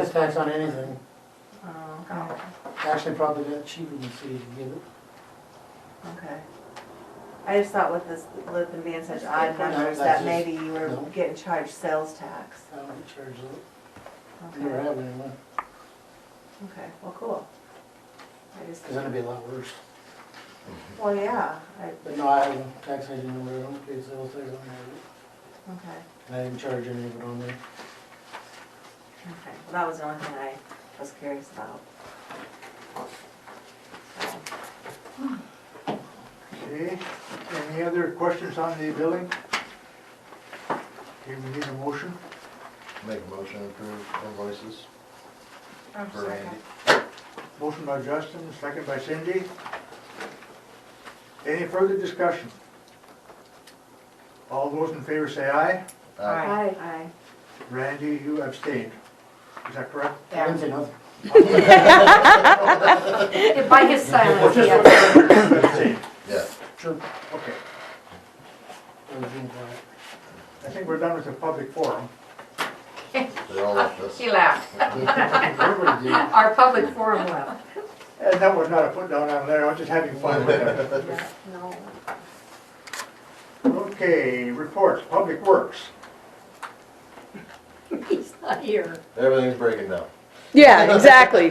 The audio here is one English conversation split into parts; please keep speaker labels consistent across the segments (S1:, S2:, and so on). S1: excise tax on anything.
S2: Oh, okay,
S1: Actually, probably got cheaper than city to give it.
S2: okay. I just thought with this, with them being such odd
S1: No,
S2: numbers,
S1: that's
S2: that maybe you were
S1: no.
S2: getting charged sales tax.
S1: I don't get charged it. Never
S2: Okay,
S1: have anyone,
S2: okay, well, cool. I just,
S1: because that'd be a lot worse.
S2: well, yeah, I,
S1: But no, I have a tax agent over there, I don't pay sales tax on it.
S2: okay,
S1: And I didn't charge any of it on there.
S2: okay. Well, that was the only thing I was curious about. So,
S3: Okay, any other questions on the billing? Okay, we need a motion.
S4: Make a motion to approve invoices for Randy.
S3: Motion by Justin, second by Cindy. Any further discussion? All those in favor say aye.
S4: Uh,
S2: Aye. Aye.
S3: Randy, you abstained. Is that correct?
S1: I didn't say nothing.
S5: By his silence,
S3: Just
S5: yeah.
S3: one person abstained.
S4: Yeah,
S1: Sure.
S3: Okay,
S1: I was being quiet.
S3: I think we're done with the public forum.
S4: they all left us.
S5: He left.
S3: Everybody did.
S5: Our public forum left.
S3: And that was not a put down on Larry, I was just having fun with that.
S2: Yeah, no.
S3: Okay, reports, Public Works.
S5: He's not here.
S4: Everything's breaking down.
S6: Yeah, exactly.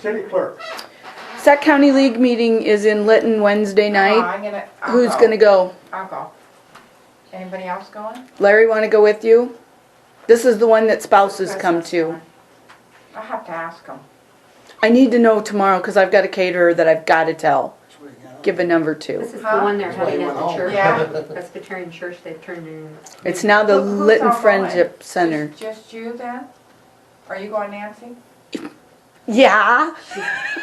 S3: City Clerk.
S6: Sac County League meeting is in Lytton Wednesday night.
S7: I'm gonna, I'll
S6: Who's
S7: go.
S6: gonna go?
S7: I'll go. Anybody else going?
S6: Larry, wanna go with you? This is the one that spouses come to.
S7: I'll have to ask them.
S6: I need to know tomorrow, cause I've got a caterer that I've gotta tell,
S1: That's where you got it.
S6: give a number
S5: This
S6: to.
S5: is the one they're
S1: Well, he
S5: having at
S1: went
S5: the
S1: home.
S5: church.
S7: Yeah.
S5: Presbyterian church they've turned in.
S6: It's now the
S7: Who- who's
S6: Lytton
S7: all going?
S6: Friendship Center.
S7: Just- Just you then? Are you going Nancy?
S6: Yeah.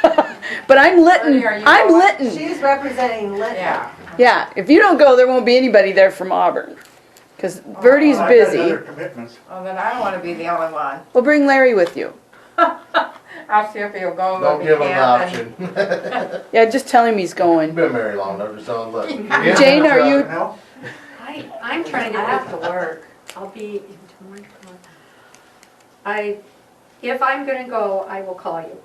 S6: But I'm Lytton,
S7: Ernie, are you
S6: I'm
S7: going?
S6: Lytton.
S2: She's representing Lytton.
S7: Yeah.
S6: Yeah, if you don't go, there won't be anybody there from Auburn. Cause
S7: Oh,
S6: Verdi's
S3: I've got
S6: busy.
S3: Other commitments.
S7: Well, then I don't wanna be the only one.
S6: Well, bring Larry with you.
S7: I'll see if he'll go.
S4: Don't
S7: if he
S4: give them the
S7: can't,
S4: option.
S6: Yeah, just tell him he's
S4: You've
S6: going.
S4: been married long enough, just don't look.
S6: Jane, are you-
S3: No?
S5: I, I'm trying to
S2: I have
S5: get,
S2: to work.
S5: I'll be in tomorrow. tomorrow. I, if I'm gonna go, I will call you,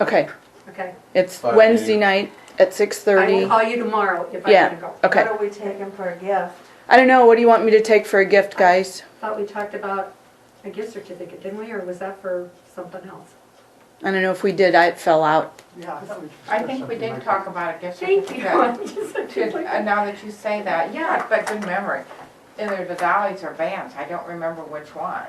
S6: Okay,
S5: okay?
S6: it's
S4: Fine.
S6: Wednesday night at six
S5: I
S6: thirty.
S5: will call you tomorrow if I'm
S6: Yeah.
S5: gonna go.
S6: Okay.
S2: What are we taking for a gift?
S6: I don't know. What do you want me to take for a gift, guys?
S5: Thought we talked about a gift certificate, didn't we, or was that for something else?
S6: I don't know if we did. I it fell out.
S3: Yeah, I thought we
S7: I think we
S3: discussed something
S7: did
S3: like
S7: talk about a gift
S5: Thank you.
S7: certificate. To- uh,
S5: Certificate.
S7: Now that you say that, yeah, but good memory. Either the Dolly's or Vans, I don't remember which one.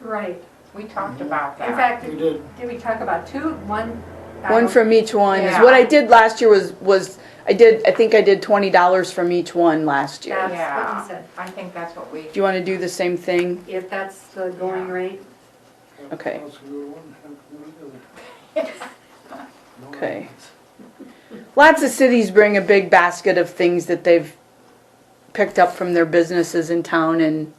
S5: Right.
S7: We talked
S4: Mm-hmm.
S7: about
S5: In
S7: that.
S5: fact,
S1: You did.
S5: did we talk about two, one? I
S6: One
S5: don't-
S6: from each one is what I
S7: Yeah.
S6: did last year. Was was I did? I think I did twenty dollars from each one last year.
S5: That's what
S7: Yeah.
S5: he said.
S7: I think that's what we,
S6: Do you want to do the same thing?
S5: If that's the going rate,
S6: Okay.
S1: House can go to one, house can go to the other. No
S6: Okay.
S1: arguments.
S6: Lots of cities bring a big basket of things that they've picked up from their businesses in town and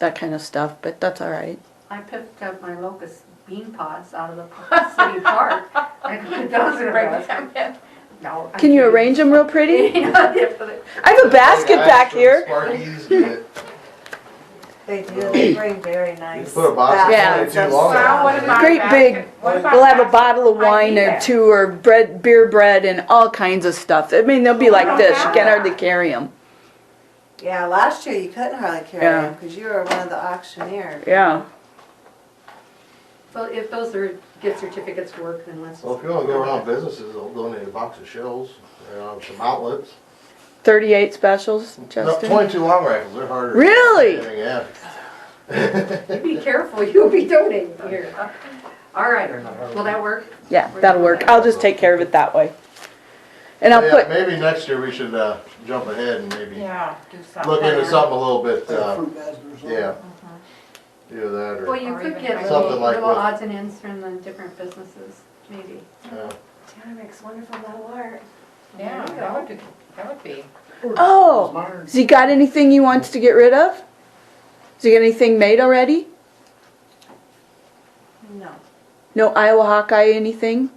S6: that kind of stuff. But that's all right.
S5: I picked up my locust bean pods out of the city park. I put those in
S7: Bring
S5: a
S7: them in.
S5: No. I'm
S6: Can you
S5: kidding.
S6: arrange them real pretty?
S5: You know, they put it-
S6: I have a basket back here.
S4: Sparkies, you
S2: They do, they bring very nice.
S4: put a box of
S6: Yeah.
S4: twenty too long.
S7: Well, what about
S6: Great
S7: a
S6: big-
S7: basket- what about
S6: We'll have a
S7: basket?
S6: bottle of
S7: I
S6: wine
S7: need
S6: or
S7: that.
S6: two or bread, beer bread and all kinds of stuff. I mean, they'll be like this. You can't hardly carry them.
S2: Yeah, last year you couldn't hardly carry
S6: Yeah.
S2: them because you were one of the auctioneers.
S6: Yeah.
S5: Well, if those are gift certificates work, then let's.
S4: Well, if you wanna go around businesses, they'll donate a box of shells, you know, some outlets.
S6: 38 specials,
S4: No,
S6: Justin.
S4: twenty-two long rifles, they're harder.
S6: Really?
S4: Yeah.
S5: You Be careful, you'll be donating here. All right, will that work?
S6: Yeah, that'll work. I'll just take care of it that way. And I'll
S4: Yeah,
S6: put,
S4: Maybe next year we should, uh, jump ahead and maybe
S7: Yeah, do something.
S4: look into something a little bit,
S1: Like a
S4: uh,
S1: fruit basket or something.
S4: yeah.
S6: Uh-huh.
S4: Either that or.
S5: Well, you
S7: Or
S5: could get
S7: even like-
S5: little
S4: Something like
S5: little
S4: what-
S5: odds and ends from the different businesses, maybe.
S4: yeah.
S2: Tara makes wonderful metal art.
S7: Yeah, that would be, that would be.
S6: oh,
S3: Modern-
S6: has he got anything he wants to get rid of? Has he got anything made already?
S2: No.
S6: No Iowa Hawkeye anything?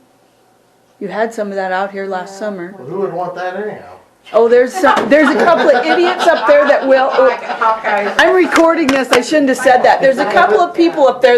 S6: You had some of that out here last
S2: Yeah.
S6: summer.
S4: Well, Who would want that anyhow?
S6: Oh, there's some, there's a couple of idiots up there that will. oh,
S7: Hawkeye- Hawkeye's
S6: I'm recording this, I shouldn't have said that. There's a couple of people up there